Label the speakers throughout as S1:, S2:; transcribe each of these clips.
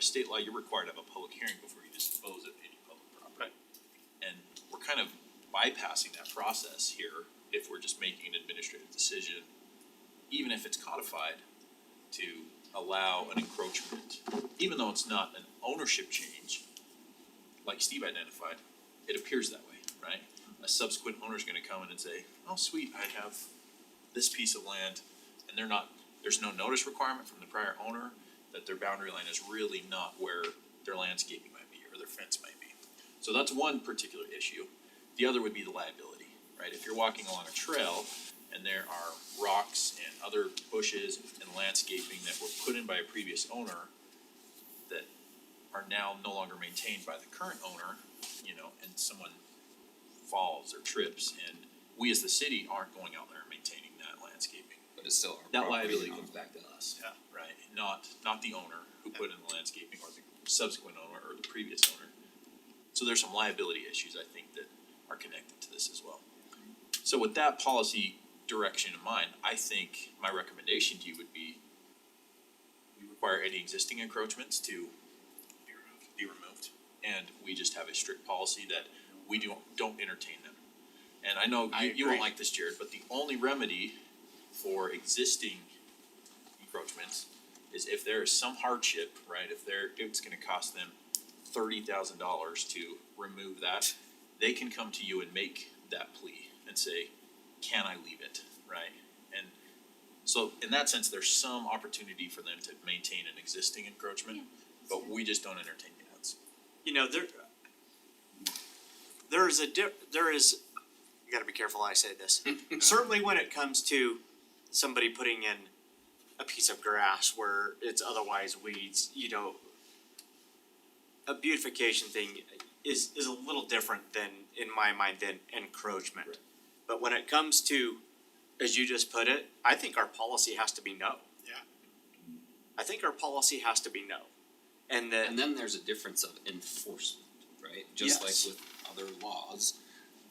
S1: state law, you're required to have a public hearing before you dispose of any public property. And we're kind of bypassing that process here if we're just making an administrative decision, even if it's codified, to allow an encroachment, even though it's not an ownership change, like Steve identified, it appears that way, right? A subsequent owner's gonna come in and say, oh, sweet, I have this piece of land, and they're not, there's no notice requirement from the prior owner that their boundary line is really not where their landscaping might be or their fence might be. So that's one particular issue. The other would be the liability, right? If you're walking along a trail and there are rocks and other bushes and landscaping that were put in by a previous owner that are now no longer maintained by the current owner, you know, and someone falls or trips and we as the city aren't going out there and maintaining that landscaping.
S2: But it's still our
S1: That
S2: property
S1: liability
S2: and
S1: comes back to us.
S3: Yeah.
S1: Right, not, not the owner who put in the landscaping or the subsequent owner or the previous owner. So there's some liability issues, I think, that are connected to this as well. So with that policy direction in mind, I think my recommendation to you would be we require any existing encroachments to Be removed. Be removed, and we just have a strict policy that we don't, don't entertain them. And I know
S3: I
S1: you, you won't
S3: agree.
S1: like this, Jared, but the only remedy for existing encroachments is if there is some hardship, right, if they're, it's gonna cost them thirty thousand dollars to remove that, they can come to you and make that plea and say, can I leave it, right? And so in that sense, there's some opportunity for them to maintain an existing encroachment, but we just don't entertain that.
S3: you know, there there is a di- there is you got to be careful how I say this. Certainly when it comes to somebody putting in a piece of grass where it's otherwise weeds, you know, a beautification thing is is a little different than in my mind than encroachment.
S1: Right.
S3: But when it comes to as you just put it, I think our policy has to be no.
S4: Yeah.
S3: I think our policy has to be no. And that
S2: And then there's a difference of enforcement, right? Just
S3: Yes.
S2: like with other laws,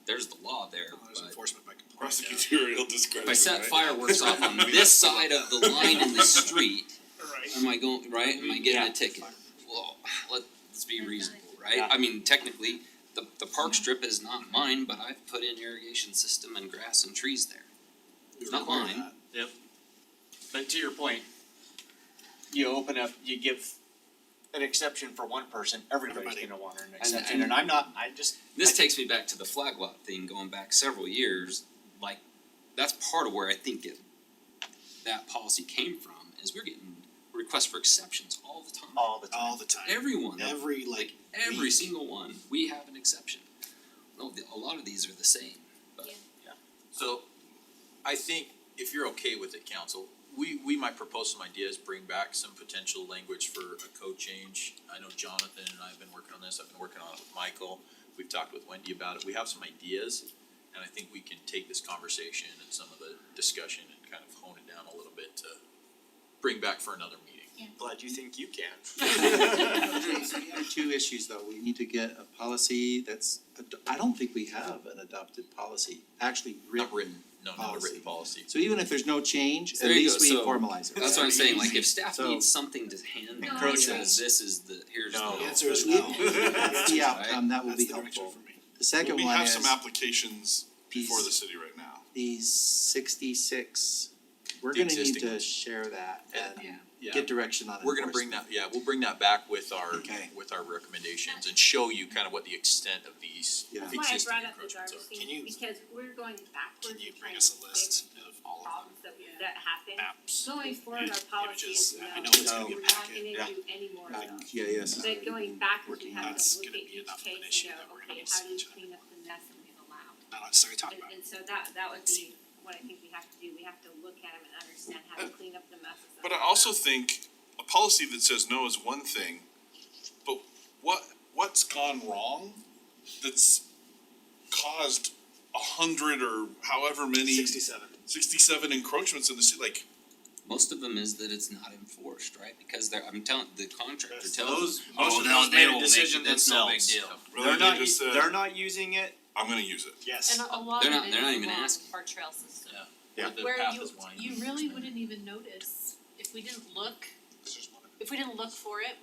S2: there's the law there,
S3: Oh,
S4: Well, There's
S2: but
S4: enforcement by complaint.
S5: Prosecutorial discretion,
S2: if I set
S5: right?
S2: fireworks off on this side of the line in the street, am I going, right, am I getting
S3: Yeah.
S2: a ticket? Well, let's be reasonable, right?
S3: Yeah.
S2: I mean, technically, the the park strip is not mine, but I've put in irrigation system and grass and trees there.
S4: We
S2: Not
S4: require
S2: mine.
S4: that.
S3: But to your point, you open up, you give an exception for one person, everybody's
S4: Everybody.
S3: gonna want an
S2: and-
S3: exception, and I'm not, I just,
S2: This takes me back to the flag lot thing going back several years. Like, that's part of where I think it, that policy came from is we're getting requests for exceptions all the time.
S3: all the
S4: All
S3: time,
S4: the time.
S2: Everyone,
S4: Every like
S2: every
S4: week.
S2: single one, we have an exception. No, the- a lot of these are the same.
S1: So I think if you're okay with it, council, we we might propose some ideas, bring back some potential language for a code change. I know Jonathan and I have been working on this, I've been working on it with Michael, we've talked with Wendy about it, we have some ideas. And I think we can take this conversation and some of the discussion and kind of hone it down a little bit to bring back for another meeting.
S3: glad you think you can.
S6: So we have two issues though, we need to get a policy that's, ad- I don't think we have an adopted policy, actually
S1: Not
S6: written.
S1: written, no, not a written policy.
S6: So even if there's no change, at
S2: There you go.
S6: least we
S2: So,
S6: formalize it.
S2: That's what I'm saying, like if staff
S6: So-
S2: needs something to hand them,
S6: Encroach
S2: says this is the, here's the.
S3: No.
S4: The answer is
S6: We-
S4: no.
S6: That's the outcome, that will
S4: That's
S6: be
S4: the direction
S6: helpful.
S4: for me.
S6: The second
S5: We
S6: one
S5: have some
S6: is
S5: applications before the
S6: these-
S5: city right now.
S6: these sixty-six, we're
S1: The
S6: gonna need
S1: existing
S6: to
S1: ones.
S6: share that and
S1: Yeah.
S6: get direction on enforcement.
S1: We're gonna bring that, yeah, we'll bring that back with our,
S6: Okay.
S1: with our recommendations and show you kind of what the extent of these
S6: Yeah.
S7: That's why I
S1: existing
S7: brought up the
S1: encroachments are.
S7: garbage
S4: Can
S7: thing,
S4: you-
S7: because we're going
S4: Can
S7: backwards
S4: you
S7: and trying
S4: bring
S7: to
S4: us a
S7: fix
S4: list of all of
S7: problems that
S3: Yeah.
S7: that happen.
S4: them? Apps.
S7: Going forward,
S4: Yeah.
S7: our policy is
S4: Images. I- I know
S7: no,
S4: it's
S6: gonna
S7: we're
S6: be a
S7: not
S4: packet.
S7: gonna
S6: Yeah.
S7: do any more of
S6: Uh,
S7: those.
S6: yeah, yes.
S7: But going backwards, we have
S4: That's
S7: to look at
S4: gonna be
S7: each
S4: enough of an
S7: case
S4: issue
S7: and
S4: that
S7: go,
S4: we're gonna
S7: okay,
S4: need
S7: how
S4: to
S7: do we
S4: check.
S7: clean up the mess that we've allowed?
S4: Not necessarily talking about.
S7: And and so that that would be what I think we have to do, we have to look at them and understand how to clean up the messes. that
S5: But
S7: we've
S5: I also
S7: allowed.
S5: think a policy that says no is one thing, but what, what's gone wrong that's caused a hundred or however many,
S4: Sixty-seven.
S5: sixty-seven encroachments in the city, like,
S2: Most of them is that it's not enforced, right? Because they're, I'm telling, the contractor
S4: Yes,
S2: tells.
S3: most
S2: "Oh,
S3: of
S2: no,
S3: those
S2: they
S3: made a
S2: don't make it.
S3: decision
S2: That's no big
S3: themselves."
S2: deal."
S5: really,
S3: They're
S5: they
S3: not,
S5: just
S3: u-
S5: said,
S3: they're not using it,
S5: I'm gonna use it.
S4: uh, Yes.
S8: And a- a lot
S2: They're
S8: of
S2: not-
S8: it
S2: they're not
S8: is
S2: even
S8: along
S2: asking.
S8: our trail system.
S1: Yeah.
S3: Yeah.
S1: The
S8: Where
S1: path
S8: you,
S1: is winding.
S8: you really wouldn't even notice if we didn't look, if we didn't look for it,